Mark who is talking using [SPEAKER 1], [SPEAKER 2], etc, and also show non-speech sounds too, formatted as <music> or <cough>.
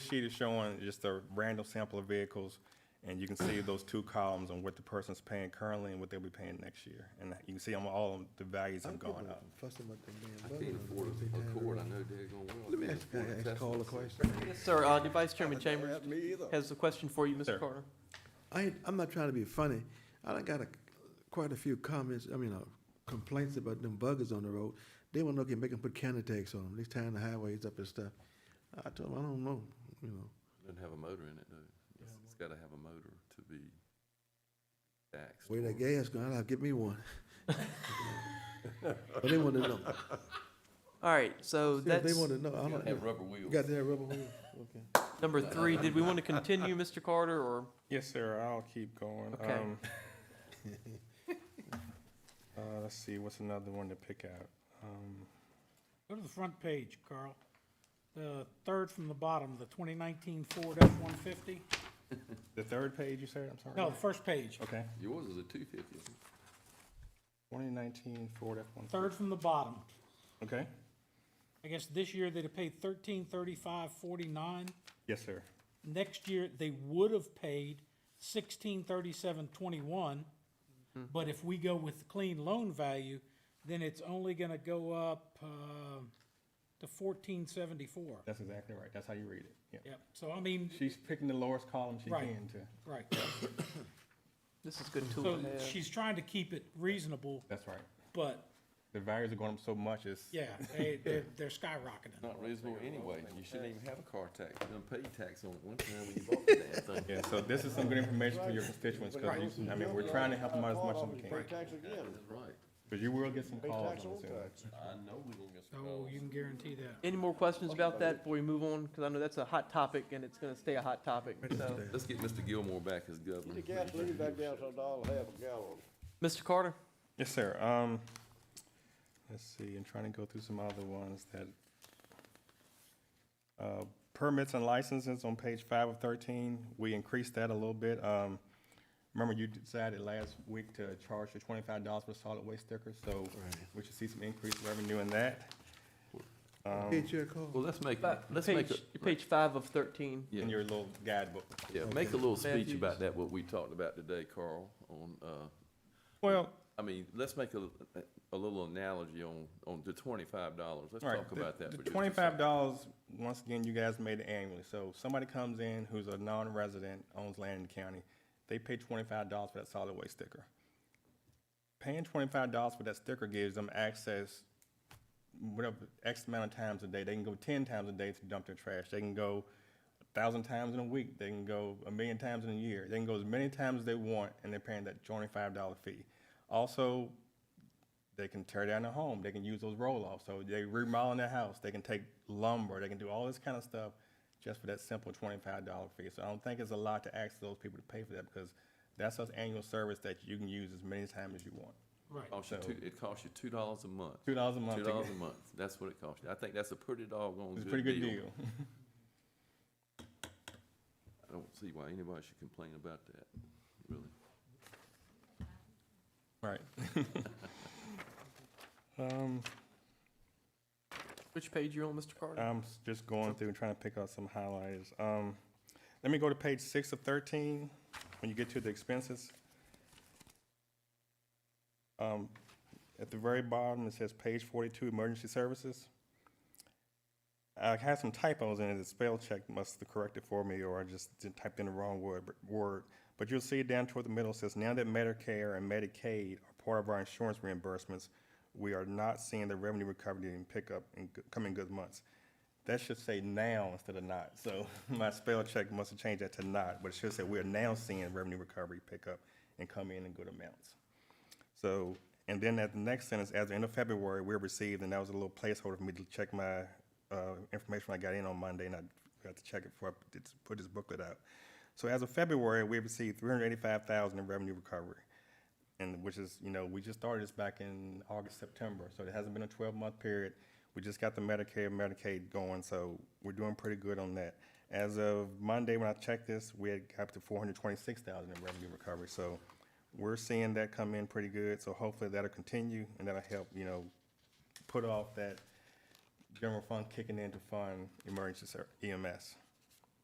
[SPEAKER 1] sheet is showing just a random sample of vehicles, and you can <clears throat> see those two columns on what the person's paying currently and what they'll be paying next year. And you can see on all of them, the values have gone up.
[SPEAKER 2] Fussing about that damn
[SPEAKER 3] I can't
[SPEAKER 2] button.
[SPEAKER 3] afford
[SPEAKER 2] They
[SPEAKER 3] a
[SPEAKER 2] tired of
[SPEAKER 3] Accord,
[SPEAKER 2] it.
[SPEAKER 3] I know daggone well. I
[SPEAKER 2] Let me
[SPEAKER 3] can't
[SPEAKER 2] ask,
[SPEAKER 3] afford a
[SPEAKER 2] ask
[SPEAKER 3] Tesla.
[SPEAKER 2] Call a question.
[SPEAKER 4] Yes, sir. Uh, your Vice Chairman Chambers
[SPEAKER 2] Not Me either.
[SPEAKER 4] has a question for you, Mr.
[SPEAKER 1] Sir.
[SPEAKER 4] Carter.
[SPEAKER 2] I ain't, I'm not trying to be funny. I done got a, quite a few comments, I mean, uh, complaints about them buggers on the road. They wanna look and make them put counter tags on them. They tying the highways up and stuff. I told them, I don't know, you know.
[SPEAKER 3] Doesn't have a motor in it, though. It's- It's gotta have a motor to be taxed.
[SPEAKER 2] Where
[SPEAKER 3] or-
[SPEAKER 2] that gas going, I'll give me one. <laughs> But they wanna know.
[SPEAKER 4] All right, so
[SPEAKER 2] See, They
[SPEAKER 4] that's
[SPEAKER 2] wanna know. I
[SPEAKER 3] Gotta have
[SPEAKER 2] don't,
[SPEAKER 3] rubber
[SPEAKER 2] you
[SPEAKER 3] wheels.
[SPEAKER 2] got that rubber wheel? Okay.
[SPEAKER 4] number three. Did we want to continue, Mr. Carter, or?
[SPEAKER 1] Yes, sir, I'll keep going.
[SPEAKER 4] Okay.
[SPEAKER 1] Um, Uh, let's see, what's another one to pick out? Um,
[SPEAKER 5] Go to the front page, Carl. The third from the bottom, the 2019 Ford F-150.
[SPEAKER 1] The third page, you said, I'm sorry?
[SPEAKER 5] No, the first page,
[SPEAKER 1] Okay,
[SPEAKER 3] Yours is a two fifty.
[SPEAKER 1] twenty nineteen Ford F-150.
[SPEAKER 5] third from the bottom.
[SPEAKER 1] Okay,
[SPEAKER 5] I guess this year they'd have paid 1335.49.
[SPEAKER 1] yes, sir.
[SPEAKER 5] Next year, they would have paid 1637.21. But if we go with the clean loan value, then it's only gonna go up, uh, to 1474.
[SPEAKER 1] That's exactly right, that's how you read it, yeah.
[SPEAKER 5] Yep, so I mean,
[SPEAKER 1] She's picking the lowest column she
[SPEAKER 5] Right.
[SPEAKER 1] can to,
[SPEAKER 5] right,
[SPEAKER 4] This is good tool <coughs>
[SPEAKER 5] so
[SPEAKER 4] to have.
[SPEAKER 5] she's trying to keep it reasonable,
[SPEAKER 1] that's right.
[SPEAKER 5] but
[SPEAKER 1] The values are going up so much, it's,
[SPEAKER 5] Yeah, they, they're,
[SPEAKER 3] <laughs>
[SPEAKER 5] they're skyrocketing.
[SPEAKER 3] Not reasonable anyway. You shouldn't even have a car tax. You don't pay tax on it one time when you bought the damn thing.
[SPEAKER 1] yeah, so this is some good information for your constituents, because, I mean, we're trying to help them out as much as we can.
[SPEAKER 6] Tax again,
[SPEAKER 3] That's right.
[SPEAKER 1] Because you will get some calls
[SPEAKER 6] tax
[SPEAKER 1] on
[SPEAKER 6] on
[SPEAKER 1] this. area.
[SPEAKER 6] tax.
[SPEAKER 3] I know we are gonna get some
[SPEAKER 5] Oh,
[SPEAKER 3] calls.
[SPEAKER 5] you can guarantee that.
[SPEAKER 4] Any more questions about that before we move on? Because I know that's a hot topic and it's going to stay a hot topic. So,
[SPEAKER 3] Let's get Mr. Gilmore back as governor.
[SPEAKER 6] The gasoline back down to a dollar, half a gallon.
[SPEAKER 4] Mr. Carter,
[SPEAKER 1] Yes, sir. Um, let's see, I'm trying to go through some other ones that, uh, permits and licenses on page five of thirteen, we increased that a little bit. Um, remember you decided last week to charge for twenty-five dollars for solid waste stickers, so we should see some increased revenue in that.
[SPEAKER 2] Hey, Chair Cole.
[SPEAKER 3] Well, let's make, let's make,
[SPEAKER 4] page,
[SPEAKER 3] a-
[SPEAKER 4] page five of 13.
[SPEAKER 3] Yeah.
[SPEAKER 1] In your little guidebook.
[SPEAKER 3] yeah, make a little speech
[SPEAKER 4] Matthews.
[SPEAKER 3] about that, what we talked about today, Carl, on, uh,
[SPEAKER 1] Well,
[SPEAKER 3] I mean, let's make a, a little analogy on, on the twenty-five dollars. Let's
[SPEAKER 1] All right,
[SPEAKER 3] talk
[SPEAKER 1] the-
[SPEAKER 3] about that.
[SPEAKER 1] The
[SPEAKER 3] for just a
[SPEAKER 1] twenty-five
[SPEAKER 3] second.
[SPEAKER 1] dollars, once again, you guys made it annually, so somebody comes in who's a non-resident, owns land in the county, they pay twenty-five dollars for that solid waste sticker. Paying twenty-five dollars for that sticker gives them access, whatever, X amount of times a day, they can go ten times a day to dump their trash, they can go a thousand times in a week, they can go a million times in a year, they can go as many times as they want, and they're paying that twenty-five dollar fee. Also, they can tear down their home. They can use those roll offs. So they remodeling their house. They can take lumber. They can do all this kind of stuff just for that simple twenty-five dollar fee. So I don't think it's a lot to ask those people to pay for that because that's an annual service that you can use as many times as you want.
[SPEAKER 5] Right.
[SPEAKER 3] Costs you
[SPEAKER 1] So-
[SPEAKER 3] two, it costs you two dollars a month.
[SPEAKER 1] Two dollars a month.
[SPEAKER 3] Two
[SPEAKER 1] to
[SPEAKER 3] dollars
[SPEAKER 1] get-
[SPEAKER 3] a month. That's what it costs you. I think that's a pretty doggone
[SPEAKER 1] It's a
[SPEAKER 3] good
[SPEAKER 1] pretty good deal.
[SPEAKER 3] I don't see why anybody should complain about that, really.
[SPEAKER 1] right. <laughs> um,
[SPEAKER 4] Which page you on, Mr. Carter?
[SPEAKER 1] I'm s- just going through and trying to pick out some highlights. Um, let me go to page six of thirteen, when you get to the expenses. Um, at the very bottom, it says page forty-two, emergency services. I had some typos in it, the spell check must have corrected for me, or I just did type in the wrong word, word. But you'll see down toward the middle, it says, now that Medicare and Medicaid are part of our insurance reimbursements, we are not seeing the revenue recovery and pickup in g- coming good months. That should say now instead of not, so <laughs> my spell check must have changed that to not, but it should say we are now seeing revenue recovery pickup and come in in good amounts. So, and then at the next sentence, as of the end of February, we received, and that was a little placeholder for me to check my, uh, information I got in on Monday, and I forgot to check it before I put this- put this booklet out. So as of February, we received three hundred eighty-five thousand in revenue recovery. And which is, you know, we just started this back in August, September, so it hasn't been a twelve-month period. We just got the Medicare, Medicaid going, so we're doing pretty good on that. As of Monday, when I checked this, we had got up to four hundred twenty-six thousand in revenue recovery, so we're seeing that come in pretty good, so hopefully that'll continue, and that'll help, you know, put off that general fund kicking in to fund emergency ser- E EMS.